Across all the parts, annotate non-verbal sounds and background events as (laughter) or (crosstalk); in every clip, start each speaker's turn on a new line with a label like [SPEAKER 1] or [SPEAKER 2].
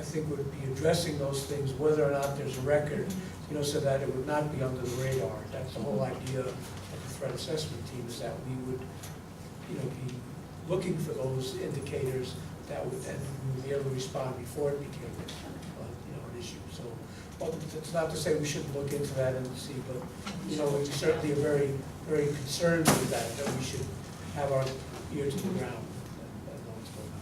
[SPEAKER 1] think would be addressing those things, whether or not there's a record, you know, so that it would not be under the radar. That's the whole idea of the threat assessment team, is that we would, you know, be looking for those indicators that would, and we would be able to respond before it became, uh, you know, an issue. So, well, it's not to say we shouldn't look into that and see, but, you know, we certainly are very, very concerned with that, that we should have our ear to the ground and and know what's going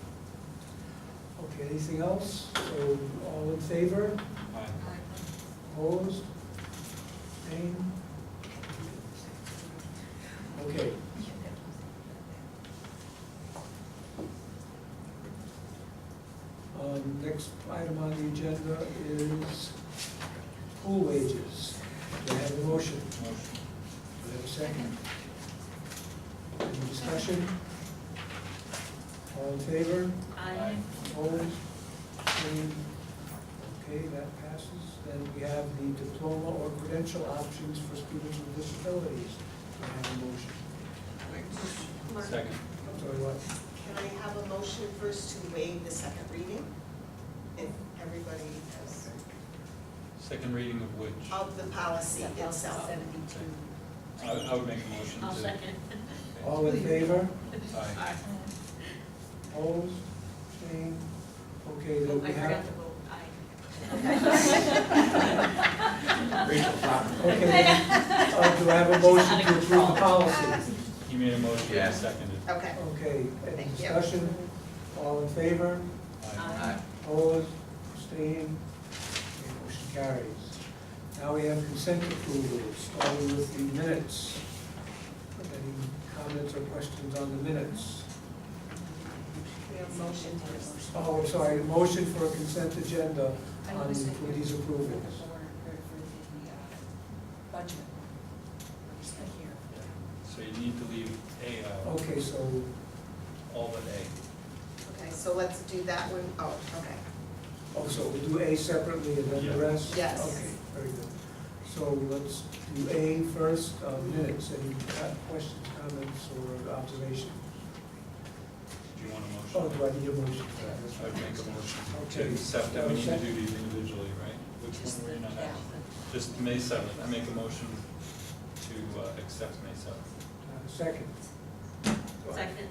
[SPEAKER 1] on. Okay, anything else? So all in favor? Opposed? Abstained? Okay. Um, Next item on the agenda is pool wages. Do I have a motion? Do I have a second? Any discussion? All in favor?
[SPEAKER 2] Aye.
[SPEAKER 1] Opposed? Abstained? Okay, that passes. Then we have the diploma or credential options for students with disabilities. Do I have a motion?
[SPEAKER 3] Mark,
[SPEAKER 2] Second.
[SPEAKER 1] I'm sorry, what?
[SPEAKER 3] Can I have a motion first to waive the second reading? If everybody has,
[SPEAKER 2] Second reading of which? I,
[SPEAKER 3] of the policy itself.
[SPEAKER 2] I would make a motion to.
[SPEAKER 4] I'll second.
[SPEAKER 1] All in favor?
[SPEAKER 2] Aye.
[SPEAKER 1] Opposed? Abstained? Okay, then
[SPEAKER 4] Oh, I
[SPEAKER 1] we
[SPEAKER 4] forgot
[SPEAKER 1] have.
[SPEAKER 4] to vote
[SPEAKER 2] Rachel
[SPEAKER 1] Okay,
[SPEAKER 4] (laughs)
[SPEAKER 1] then, uh, do I have a motion to approve the policy?
[SPEAKER 2] He made a motion, I
[SPEAKER 5] Yeah.
[SPEAKER 2] seconded.
[SPEAKER 3] Okay,
[SPEAKER 1] Okay, any
[SPEAKER 3] Thank you.
[SPEAKER 1] discussion? All in favor?
[SPEAKER 4] Aye.
[SPEAKER 1] Opposed, abstained, Okay, motion carries. Now we have consent approvals, starting with the minutes. Any comments or questions on the minutes?
[SPEAKER 3] we have motion first.
[SPEAKER 1] Oh, I'm sorry, motion for a consent agenda on the- for these approvals.
[SPEAKER 6] Budget. Just right here.
[SPEAKER 2] So you need to leave A out,
[SPEAKER 1] Okay, so,
[SPEAKER 2] all but A.
[SPEAKER 3] Okay, so let's do that one, oh, okay.
[SPEAKER 1] oh, so we'll do A separately and then the
[SPEAKER 2] Yeah.
[SPEAKER 1] rest?
[SPEAKER 3] Yes.
[SPEAKER 1] Okay, very good. So let's do A first, uh, minutes, any uh, questions, comments, or observation?
[SPEAKER 2] Do you want a
[SPEAKER 1] Oh,
[SPEAKER 2] motion?
[SPEAKER 1] do I need a motion for that? That's
[SPEAKER 2] I would make a motion to
[SPEAKER 1] Okay.
[SPEAKER 2] accept that we need to
[SPEAKER 1] Second.
[SPEAKER 2] do these individually, right? Which one were you not at? Just May seventh, I make a motion to uh, accept May seventh.
[SPEAKER 1] Uh, Second.
[SPEAKER 4] Second.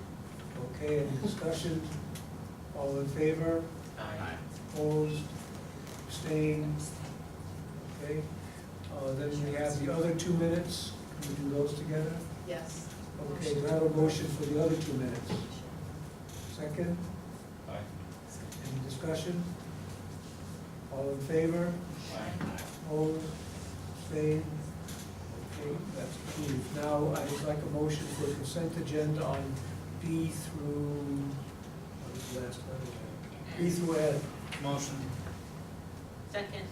[SPEAKER 1] Okay, any discussion? All in favor?
[SPEAKER 2] Aye.
[SPEAKER 1] Opposed? Abstained? Okay. Uh, Then we have the other two minutes. Can we do those together?
[SPEAKER 3] Yes.
[SPEAKER 1] Okay, do I have a motion for the other two minutes? Second,
[SPEAKER 2] Aye.
[SPEAKER 1] any discussion? All in favor?
[SPEAKER 2] Aye.
[SPEAKER 1] Opposed? Abstained? Okay, that's approved. Now, I would like a motion for a consent agenda on B through, what was the last letter? B through N.
[SPEAKER 2] Motion.
[SPEAKER 4] Second.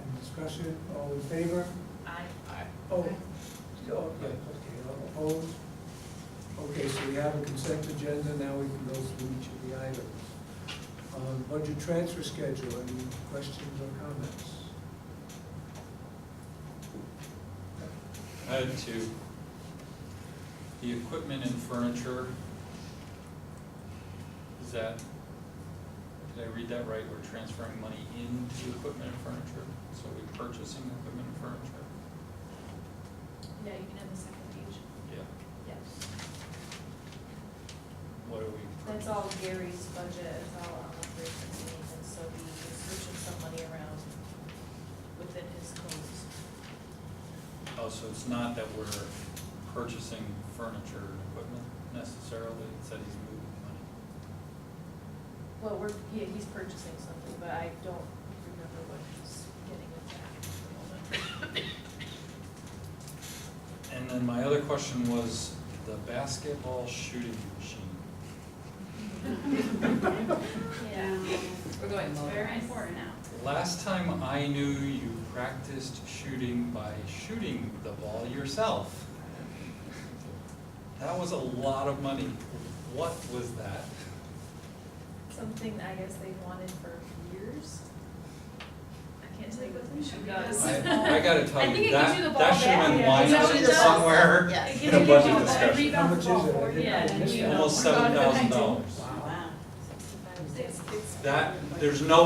[SPEAKER 1] Any discussion, all in favor?
[SPEAKER 4] Aye.
[SPEAKER 5] Aye.
[SPEAKER 1] Oh, yeah, okay, opposed? Okay, so we have a consent agenda, now we can go through each of the items. Um, Budget transfer schedule, any questions or comments?
[SPEAKER 2] I had two. The equipment and furniture. Is that, did I read that right? We're transferring money into equipment and furniture, so we're purchasing equipment and furniture?
[SPEAKER 6] Yeah, you can have the second page.
[SPEAKER 2] Yeah.
[SPEAKER 6] Yes.
[SPEAKER 2] What are we?
[SPEAKER 6] That's all Gary's budget, it's all on operations and maintenance, so we are switching some money around within his codes.
[SPEAKER 2] Oh, so it's not that we're purchasing furniture and equipment necessarily, it's that he's moving money.
[SPEAKER 6] Well, we're, yeah, he's purchasing something, but I don't remember what he's getting with that at the moment.
[SPEAKER 2] And then my other question was the basketball shooting machine.
[SPEAKER 4] Yeah.
[SPEAKER 6] We're going
[SPEAKER 4] It's very important now.
[SPEAKER 2] Last time I knew, you practiced shooting by shooting the ball yourself. That was a lot of money. What was that?
[SPEAKER 6] Something I guess they wanted for years. I can't tell you what the issue
[SPEAKER 4] Yes.
[SPEAKER 6] was. (laughs)
[SPEAKER 2] I, I gotta tell
[SPEAKER 4] I think it
[SPEAKER 2] you,
[SPEAKER 4] gives you the
[SPEAKER 2] that,
[SPEAKER 4] ball
[SPEAKER 2] that should have been
[SPEAKER 6] back.
[SPEAKER 2] lined
[SPEAKER 6] Yeah,
[SPEAKER 2] up
[SPEAKER 6] it does.
[SPEAKER 2] somewhere
[SPEAKER 3] Yes.
[SPEAKER 2] in a budget discussion.
[SPEAKER 1] How much is it? I didn't- I
[SPEAKER 4] Yeah,
[SPEAKER 1] missed
[SPEAKER 4] you
[SPEAKER 1] that.
[SPEAKER 4] know.
[SPEAKER 2] Almost seven thousand dollars.
[SPEAKER 1] Wow.
[SPEAKER 6] Sixty-five,
[SPEAKER 3] It's- it's-
[SPEAKER 2] That, there's no